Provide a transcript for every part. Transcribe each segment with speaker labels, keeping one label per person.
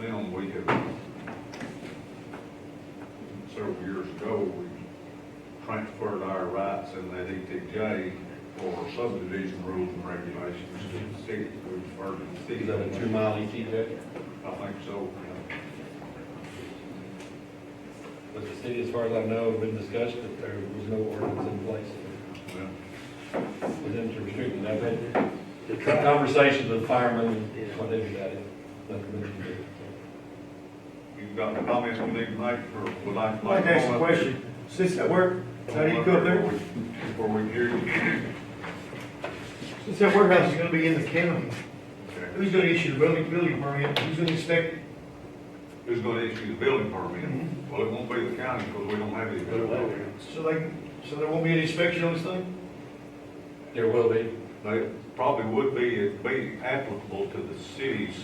Speaker 1: them, we have, several years ago, we transferred our rights in that ETJ for subdivision rules and regulations to the city, we referred to the city.
Speaker 2: Is that a two mile ETJ?
Speaker 1: I think so, yeah.
Speaker 2: But the city, as far as I know, been discussed that there was no ordinance in place
Speaker 1: Well,
Speaker 2: for them to restrict it. I've had some conversations with firemen, what they do that is, nothing mentioned it.
Speaker 1: You've got comments we need to make, or would like
Speaker 3: I'd
Speaker 1: to
Speaker 3: like
Speaker 1: make?
Speaker 3: to ask a question. Since I work, how do you go up there?
Speaker 1: Before we hear you.
Speaker 3: Since that warehouse is gonna be in the county,
Speaker 1: Okay.
Speaker 3: who's gonna issue the building, building permit? Who's gonna inspect it?
Speaker 1: Who's gonna issue the building
Speaker 3: Mm-hmm.
Speaker 1: permit? Well, it won't be the county, because we don't have any building permit.
Speaker 3: So they, so there won't be an inspection on this thing?
Speaker 2: There will be.
Speaker 1: They probably would be, it'd be applicable to the city's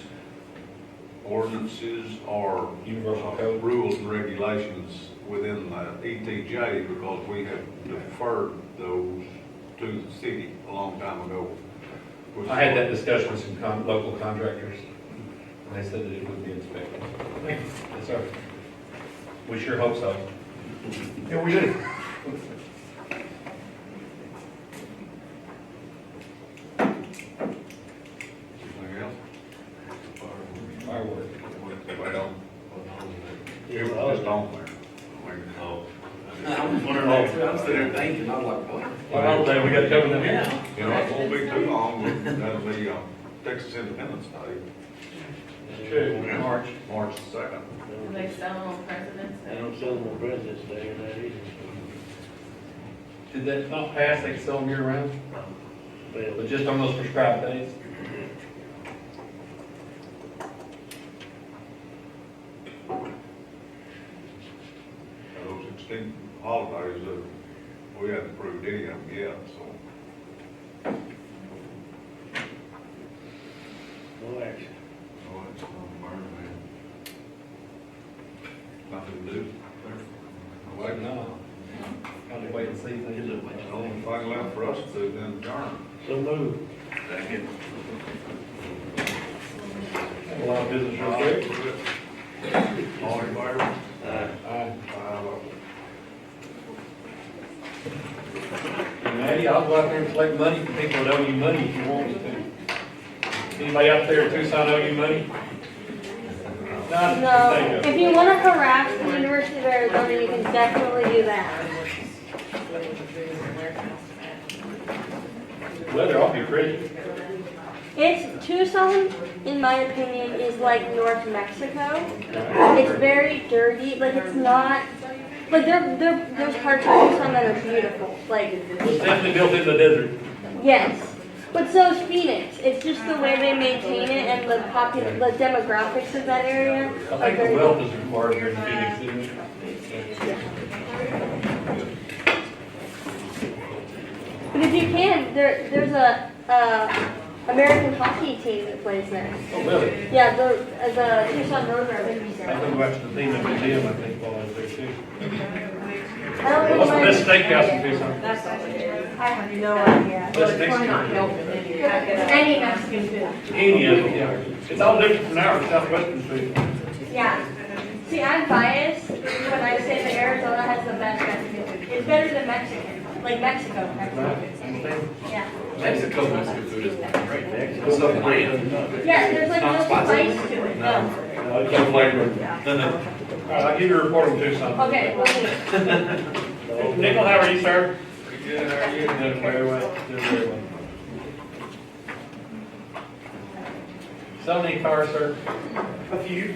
Speaker 1: ordinances or
Speaker 2: Universal
Speaker 1: uh,
Speaker 2: code.
Speaker 1: rules and regulations within the ETJ because we have deferred those to the city a long time ago.
Speaker 2: I had that discussion with some con- local contractors, and they said that it would be inspected.
Speaker 3: Thank you.
Speaker 2: Yes, sir. We sure hope so.
Speaker 3: Yeah, we do.
Speaker 1: Anything else?
Speaker 2: Fireworks.
Speaker 1: Well, it was just on there.
Speaker 4: Oh. I was wondering, I was sitting there thinking, I was like, what?
Speaker 2: Well, I don't think we got covered in here.
Speaker 4: Yeah.
Speaker 1: You know, it won't be too long, that'll be uh, Texas Independence Day,
Speaker 2: True, March.
Speaker 1: March second.
Speaker 5: They sell them on President's
Speaker 6: They
Speaker 5: Day.
Speaker 6: don't sell them on President's Day or that either.
Speaker 2: Did that not pass, they can sell them year round?
Speaker 6: Well,
Speaker 2: But just on those prescribed days?
Speaker 1: Now, Those extinct holidays, uh, we haven't approved any of them yet, so.
Speaker 6: no action.
Speaker 1: Oh, it's on burn, man. Nothing to do. Wait, no.
Speaker 2: no. Kind of wait and see.
Speaker 6: Is it
Speaker 1: The
Speaker 6: what you
Speaker 1: only
Speaker 6: think?
Speaker 1: thing left for us to do then adjourn.
Speaker 6: So move.
Speaker 4: Second.
Speaker 2: Have A lot of business
Speaker 1: All
Speaker 2: real
Speaker 1: right,
Speaker 2: quick.
Speaker 1: we're good. All in favor?
Speaker 6: Aye.
Speaker 2: Aye.
Speaker 1: Five oh.
Speaker 2: And Maddie, I'll go out there and collect money from people that owe you money if you want me to. Anybody out there in Tucson owe you money? Not
Speaker 7: No,
Speaker 2: that you think
Speaker 7: if you want to harass the University of Arizona, you can definitely do that.
Speaker 2: of. Weather, I'll be pretty.
Speaker 7: It's Tucson, in my opinion, is like North Mexico. It's
Speaker 2: Alright.
Speaker 7: very dirty, like it's not, like there, there, there's parts of Tucson that are beautiful, like,
Speaker 2: It's definitely built in the desert.
Speaker 7: yes. But so is Phoenix, it's just the way they maintain it and the popu, the demographics of that area
Speaker 2: I
Speaker 7: are
Speaker 2: think the
Speaker 7: very.
Speaker 2: wealth is required here in Phoenix, isn't it?
Speaker 7: But if you can, there, there's a, uh, American hockey team that plays there.
Speaker 2: Oh, really?
Speaker 7: Yeah, the, uh, the Tucson Roadrunners.
Speaker 2: I think that's the theme of the museum, I think, while I was there too.
Speaker 7: I don't
Speaker 2: What's the
Speaker 7: think
Speaker 2: best
Speaker 7: mine-
Speaker 2: steakhouse in Tucson?
Speaker 5: That's all it is.
Speaker 7: I have no idea.
Speaker 2: Best
Speaker 5: Well, We're not
Speaker 2: steakhouse.
Speaker 5: helping any
Speaker 7: Any Mexican food,
Speaker 2: Any of them, yeah. It's all different from our southwestern food.
Speaker 7: yeah. See, I'm biased when I say that Arizona has the best Mexican food. It's better than Mexican, like Mexico, Mexico. Yeah.
Speaker 4: Mexico, Mexico food is great. Mexico.
Speaker 2: What's up,
Speaker 7: Yeah, there's like no spice to it, no.
Speaker 2: Some flavor. All right, I'll give you a report on Tucson.
Speaker 7: Okay, we'll do.
Speaker 2: Nickel, how are you, sir?
Speaker 1: Pretty good, how are you?
Speaker 2: Doing very well, doing very well. So many cars, sir? A few.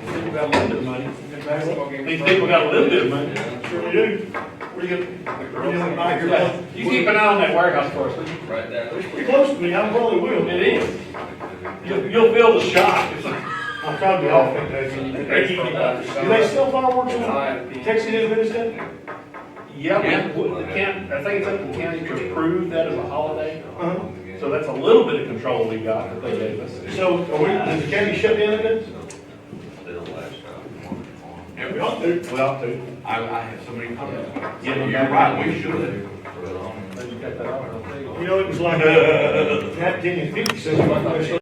Speaker 2: People got a little bit of money. These people got a little bit of money. Sure we do. Where you
Speaker 3: Yeah.
Speaker 2: You keep an eye on that warehouse for us, will you?
Speaker 4: Right there.
Speaker 3: Pretty close to me, I probably will.
Speaker 2: It is. You'll, you'll feel the shock. It's like,
Speaker 3: I'm trying to be off that day. Do they sell fireworks on Texas Independence Day?
Speaker 2: Yeah, we- we can't, I think it's up to the county to approve that as a holiday.
Speaker 3: Uh-huh.
Speaker 2: So that's a little bit of control we got that they gave us.
Speaker 3: So, are we, does the county shut down again?
Speaker 4: Still
Speaker 2: uh,
Speaker 4: last time.
Speaker 3: Yeah, we ought to.
Speaker 2: We ought to.
Speaker 4: I, I have so many comments.
Speaker 2: Yeah,
Speaker 4: Yeah,
Speaker 2: you're
Speaker 4: you're right,
Speaker 2: right.
Speaker 4: we should.
Speaker 2: But you got that off, I'll tell you.
Speaker 3: You know, it was like, uh, nineteen fifty, so we might have